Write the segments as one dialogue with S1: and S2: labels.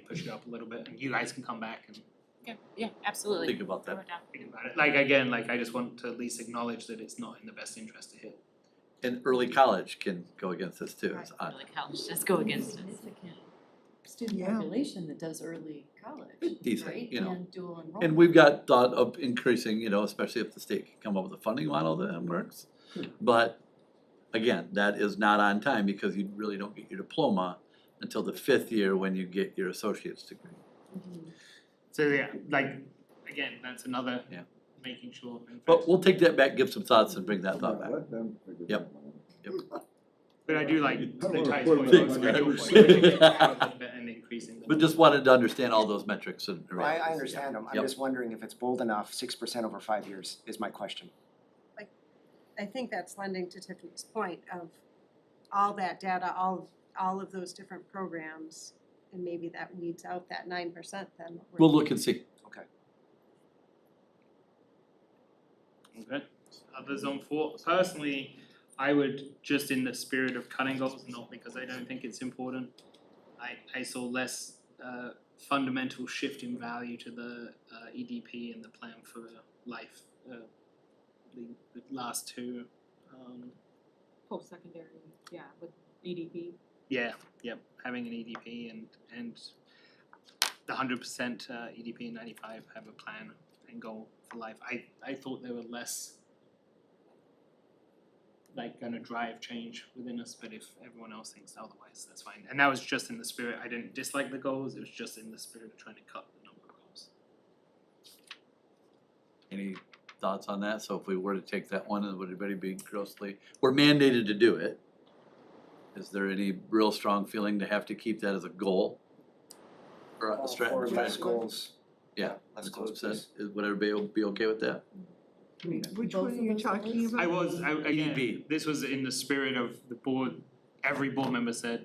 S1: push it up a little bit and you guys can come back and
S2: Okay, yeah, absolutely.
S3: Think about
S2: Throw
S3: that.
S2: it down.
S1: think about it. Like again, like I just want to at least acknowledge that it's not in the best interest to hit.
S3: And early college can go against this too, it's odd.
S2: Really helps, just go against it.
S4: Significant Student
S5: Yeah.
S4: population that does early college, right?
S3: Decent, you know.
S4: And dual enrollment.
S3: And we've got thought of increasing, you know, especially if the state can come up with a funding model that works.
S6: Hmm.
S3: But again, that is not on time because you really don't get your diploma until the fifth year when you get your associate's degree.
S4: Mhm.
S1: So yeah, like again, that's another
S3: Yeah.
S1: making sure. in
S3: But
S1: fact-
S3: we'll take that back, give some thoughts and bring that thought back.
S7: Let them figure
S3: Yep.
S7: that one out.
S1: But I do like
S7: I don't
S1: the
S7: wanna
S1: ties
S7: put
S1: point,
S7: it
S1: the
S7: on my
S1: schedule
S7: driver's
S1: point, taking
S3: seat.
S1: it out a little bit and increasing the.
S3: But just wanted to understand all those metrics and.
S6: Well, I, I understand them, I'm
S3: Yep.
S6: just wondering if it's bold enough, six percent over five years is my question.
S8: I think that's lending to Tiffany's point of all that data, all, all of those different programs, and maybe that weeds out that nine percent then. that we're-
S3: We'll look and see.
S1: Okay. Others on four, personally, I would, just in the spirit of cutting goals, not because I don't think it's important, I I saw less uh fundamental shift in value to the uh EDP and the plan for life, uh the the last two, um
S2: Post-secondary, yeah, with E EDP.
S1: yeah, yep, having an EDP and and the hundred percent uh EDP and ninety five have a plan and goal for life. I I thought they were less like gonna drive change within us, but if everyone else thinks otherwise, that's fine. And that was just in the spirit, I didn't dislike the goals, it was just in the spirit of trying to cut the number of goals.
S3: Any thoughts on that? So if we were to take that one, would anybody be grossly, we're mandated to do it. Is there any real strong feeling to have to keep that as a goal? Or a
S6: Or
S3: strategy?
S6: less goals.
S3: Yeah,
S6: Less
S3: That's what it
S6: goals,
S3: says.
S6: please.
S3: Is- Would everybody be okay with that?
S5: Which
S4: Both
S5: one are
S4: of
S5: you
S4: those
S5: talking
S4: goals?
S5: about?
S1: I was, I again,
S3: EDP.
S1: this was in the spirit of the board, every board member said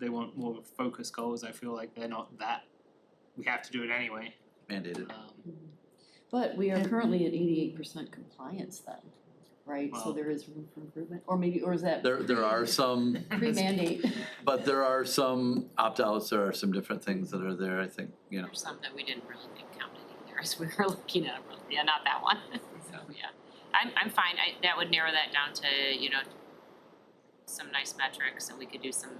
S1: they want more focused goals, I feel like they're not that. We have to do it anyway,
S3: Mandated.
S1: um
S4: Mm-hmm. But we are currently at eighty-eight percent compliance then, right?
S1: Wow.
S4: So there is room for improvement, or maybe, or is that
S3: There, there are some,
S4: pre-mandate?
S3: but there are some opt-outs, there are some different things that are there, I think, you know.
S2: Or some that we didn't really think counted either, as we were looking at, them. yeah, not that one, so, yeah. I'm, I'm fine, I, that would narrow that down to, you know, some nice metrics, and we could do some,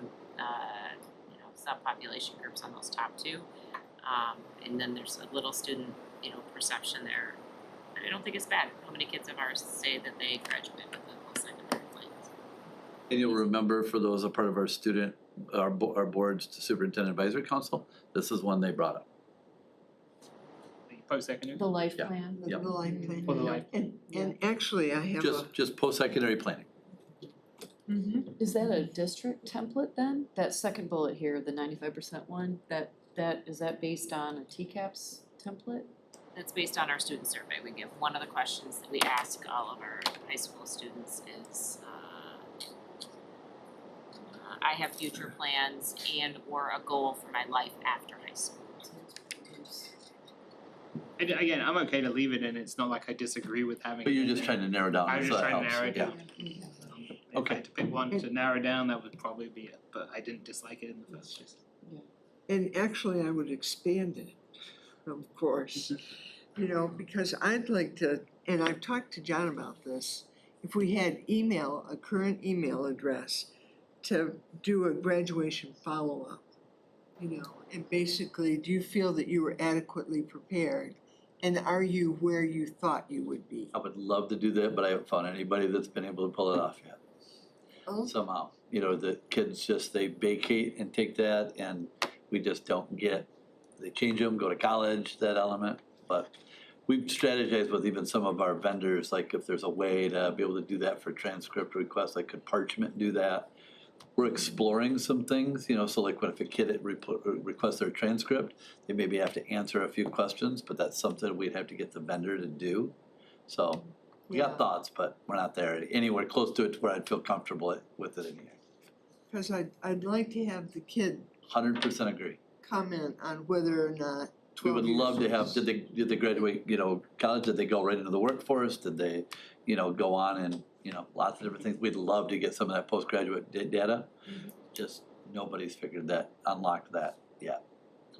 S2: uh, you know, subpopulation groups on those top two. Um, and then there's a little student, you know, perception there, but I don't think it's bad, how many kids of ours say that they graduate with a post-secondary plan?
S3: And you'll remember for those a part of our student, our bo- our board's superintendent advisory council, this is one they brought up.
S1: post-secondary.
S4: The life
S3: Yeah.
S4: plan? Mm-hmm.
S5: The
S3: Yep.
S5: line plan.
S1: For the life.
S5: And, and actually, I have a,
S3: Just, just post-secondary planning.
S4: Is that a district template then? That second bullet here, the ninety-five percent one, that, that, is that based on a TCAPS template?
S2: That's based on our student survey. We give, one of the questions that we ask all of our high school students is, uh, uh, I have future plans and or a goal for my life after high school.
S1: And again, I'm okay to leave it in, it's not like I disagree with having
S3: But
S1: it
S3: you're
S1: in
S3: just
S1: there.
S3: trying to narrow down,
S1: I was
S3: so
S1: just
S3: that
S1: trying to
S3: helps,
S1: narrow it
S3: yeah.
S1: down.
S5: Mm-hmm.
S1: Um, If I
S3: Okay.
S1: had to pick one to narrow down, that would probably be it, but I didn't dislike it in the first place.
S5: and actually, I would expand it, of course. You know, because I'd like to, and I've talked to John about this, if we had email, a current email address to do a graduation follow-up, you know, and basically, do you feel that you were adequately prepared? And are you where you thought you would be?
S3: I would love to do that, but I haven't found anybody that's been able to pull it off yet
S5: Oh,
S3: somehow. You know, the kids just, they vacate and take that and we just don't get, they change them, go to college, that element. But we've strategized with even some of our vendors, like if there's a way to be able to do that for transcript requests, like could Parchment do that? We're exploring some things, you know, so like what if a kid had repl- requests their transcript, they maybe have to answer a few questions, but that's something we'd have to get the vendor to do. So we
S5: Yeah.
S3: got thoughts, but we're not there anywhere close to it to where I'd feel comfortable with it in here.
S5: Cause I'd, I'd like to have the kid
S3: Hundred percent agree.
S5: comment on whether or not
S3: We
S5: twelve
S3: would
S5: years
S3: love to have,
S5: is-
S3: did they, did they graduate, you know, college, did they go right into the workforce, did they, you know, go on and, you know, lots of different things, we'd love to get
S5: Mm-hmm.
S3: some of that postgraduate da- data. Just nobody's figured that, unlocked that yet,